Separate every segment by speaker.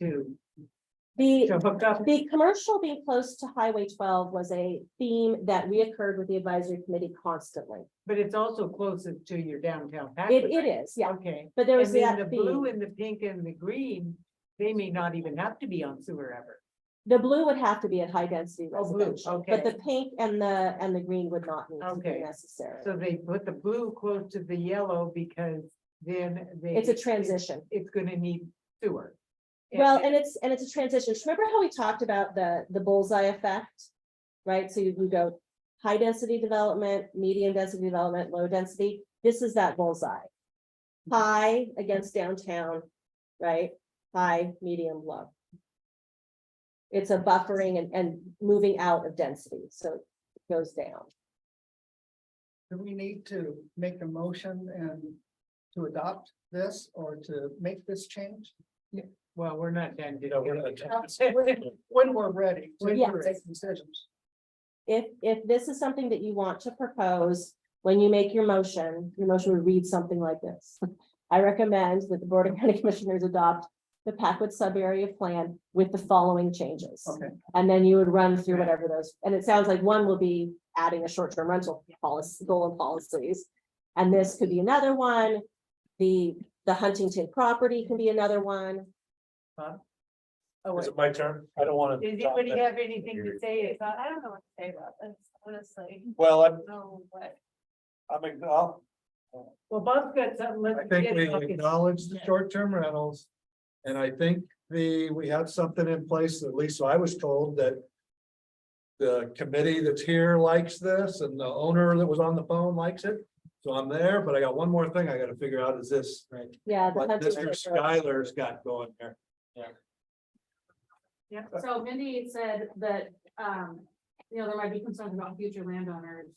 Speaker 1: to,
Speaker 2: The,
Speaker 1: to hook up.
Speaker 2: the commercial being close to Highway twelve was a theme that reoccurred with the advisory committee constantly.
Speaker 1: But it's also closer to your downtown.
Speaker 2: It,
Speaker 1: Patrick.
Speaker 2: it is, yeah,
Speaker 1: Okay.
Speaker 2: but there was
Speaker 1: And then the
Speaker 2: that
Speaker 1: blue
Speaker 2: theme.
Speaker 1: and the pink and the green, they may not even have to be on sewer ever.
Speaker 2: The blue would have to be at high density
Speaker 1: Oh, blue,
Speaker 2: residential, but
Speaker 1: okay.
Speaker 2: the pink and the, and the green would not need to be
Speaker 1: Okay.
Speaker 2: necessary.
Speaker 1: So they put the blue close to the yellow because then they.
Speaker 2: It's a transition.
Speaker 1: It's gonna need sewer.
Speaker 2: Well, and it's, and it's a transition. Just Remember how we talked about the, the bullseye effect? Right? So you can go high density development, medium density development, low density. This is that bullseye. High against downtown, right? High, medium, low. It's a buffering and, and moving out of density. So it goes down.
Speaker 3: Do we need to make a motion and to adopt this or to make this change?
Speaker 1: Well, we're not done.
Speaker 4: No, we're not done.
Speaker 3: When we're ready. to
Speaker 1: When
Speaker 2: we're
Speaker 3: make decisions.
Speaker 2: If, if this is something that you want to propose, when you make your motion, your motion would read something like this. I recommend that the Board of County Commissioners adopt the Packwood subarea plan with the following changes.
Speaker 3: Okay.
Speaker 2: And then you would run through whatever those, and it sounds like one will be adding a short-term rental policy, goal and policies. And this could be another one. The, the Huntington property can be another one.
Speaker 1: Oh,
Speaker 4: Is
Speaker 1: wait.
Speaker 4: it my turn? I don't want to.
Speaker 1: Does anybody have anything to say? about- I don't know what to say about this, honestly.
Speaker 4: Well, I'm,
Speaker 1: No, what?
Speaker 4: I'm, ig- I'll-
Speaker 1: Well, Bob's got something. let's
Speaker 5: I think
Speaker 1: get
Speaker 5: we
Speaker 1: it. Okay.
Speaker 5: acknowledge the short-term rentals. And I think the, we have something in place, at least I was told that. The committee that's here likes this and the owner that was on the phone likes it. So I'm there, but I got one more thing I gotta figure out is this,
Speaker 2: Yeah. the
Speaker 5: what
Speaker 2: Huntington
Speaker 5: Mr. Skylar's got going there.
Speaker 6: So Mindy had said that, um, you know, there might be concerns about future landowners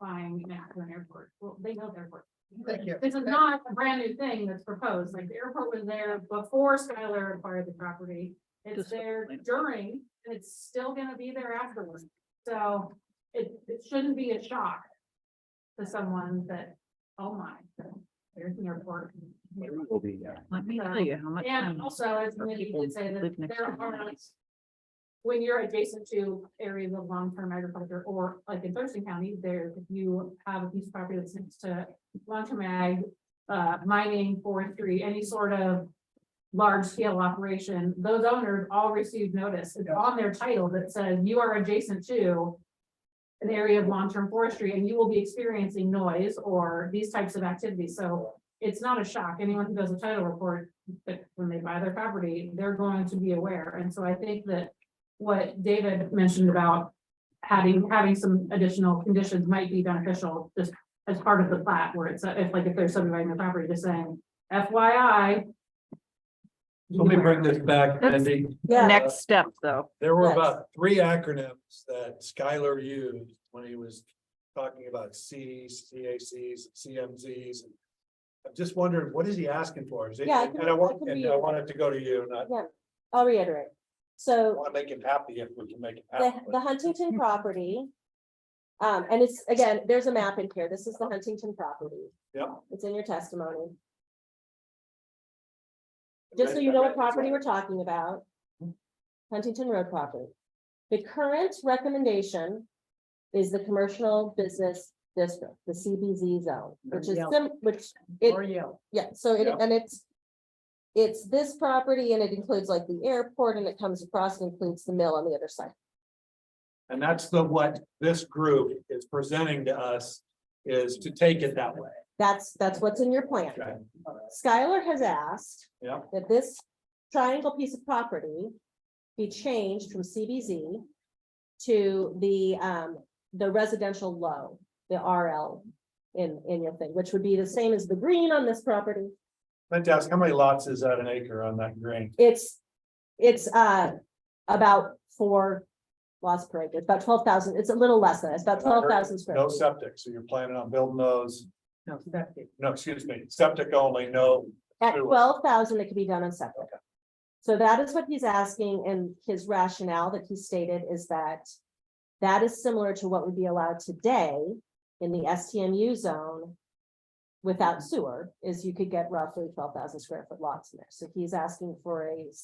Speaker 6: buying an Akron airport. Well, they know the airport.
Speaker 3: Thank you.
Speaker 6: This is not a brand new thing that's proposed. Like the airport was there before Skylar acquired the property. It's there during, and it's still gonna be there afterwards. So it, it shouldn't be a shock to someone that, oh my, there's an airport.
Speaker 7: Let me
Speaker 6: So-
Speaker 7: tell you how much.
Speaker 6: And
Speaker 7: time
Speaker 6: also, as
Speaker 7: for
Speaker 6: Mindy
Speaker 7: people
Speaker 6: did say, that
Speaker 7: live next
Speaker 6: there
Speaker 7: to the
Speaker 6: are
Speaker 7: lines.
Speaker 6: when you're adjacent to areas of long-term agriculture, or like in Thurston County, there, if you have a piece of property that's next to long-term ag, uh, mining, forestry, any sort of large-scale operation, those owners all receive notice. It's
Speaker 3: Yeah.
Speaker 6: on their title that says you are adjacent to an area of long-term forestry, and you will be experiencing noise or these types of activities. So it's not a shock. Anyone who does a title report, that when they buy their property, they're going to be aware. And so I think that what David mentioned about having, having some additional conditions might be beneficial, just as part of the plat, where it's, uh, if like, if they're subdividing the property, just saying FYI.
Speaker 5: Let me bring this back, Mindy.
Speaker 2: Yeah.
Speaker 7: Next step, though.
Speaker 5: There were
Speaker 2: Yes.
Speaker 5: about three acronyms that Skylar used when he was talking about Cs, CACs, CMZs. and I'm just wondering, what is he asking for? Is it,
Speaker 2: Yeah, I can-
Speaker 5: and I
Speaker 2: I
Speaker 5: want,
Speaker 2: can
Speaker 5: and
Speaker 2: read
Speaker 5: I
Speaker 2: it.
Speaker 5: want it to go to you, not,
Speaker 2: I'll reiterate. So.
Speaker 5: I want to make him happy if we can make it
Speaker 2: the,
Speaker 5: happen.
Speaker 2: the Huntington property. Um, and it's, again, there's a map in here. This is the Huntington property.
Speaker 5: Yeah.
Speaker 2: It's in your testimony, just so you know what property we're talking about. Huntington Road property. The current recommendation is the commercial business district, the CBZ zone, which is, sim- which, it-
Speaker 1: Or yellow.
Speaker 2: yeah, so it,
Speaker 5: Yeah.
Speaker 2: and it's. It's this property and it includes like the airport and it comes across and includes the mill on the other side.
Speaker 5: And that's the, what this group is presenting to us is to take it that way.
Speaker 2: That's, that's what's in your plan.
Speaker 5: Okay.
Speaker 2: Skylar has asked.
Speaker 5: Yeah.
Speaker 2: That this triangle piece of property be changed from CBZ to the, um, the residential low, the RL in, in your thing, which would be the same as the green on this property.
Speaker 5: Let's ask, how many lots is that an acre on that green?
Speaker 2: It's, it's, uh, about four lots per acre, It's about twelve thousand, it's a little less than, that. it's about twelve thousand square.
Speaker 5: No
Speaker 2: feet.
Speaker 5: septic, so you're planning on building those,
Speaker 1: No, septic.
Speaker 5: no, excuse me, septic only, no
Speaker 2: At
Speaker 5: Sure.
Speaker 2: twelve thousand, it could be done on separate. So that is what he's asking, and his rationale that he stated is that. That is similar to what would be allowed today in the STMU zone. Without sewer, is you could get roughly twelve thousand square foot lots in there, so he's asking for a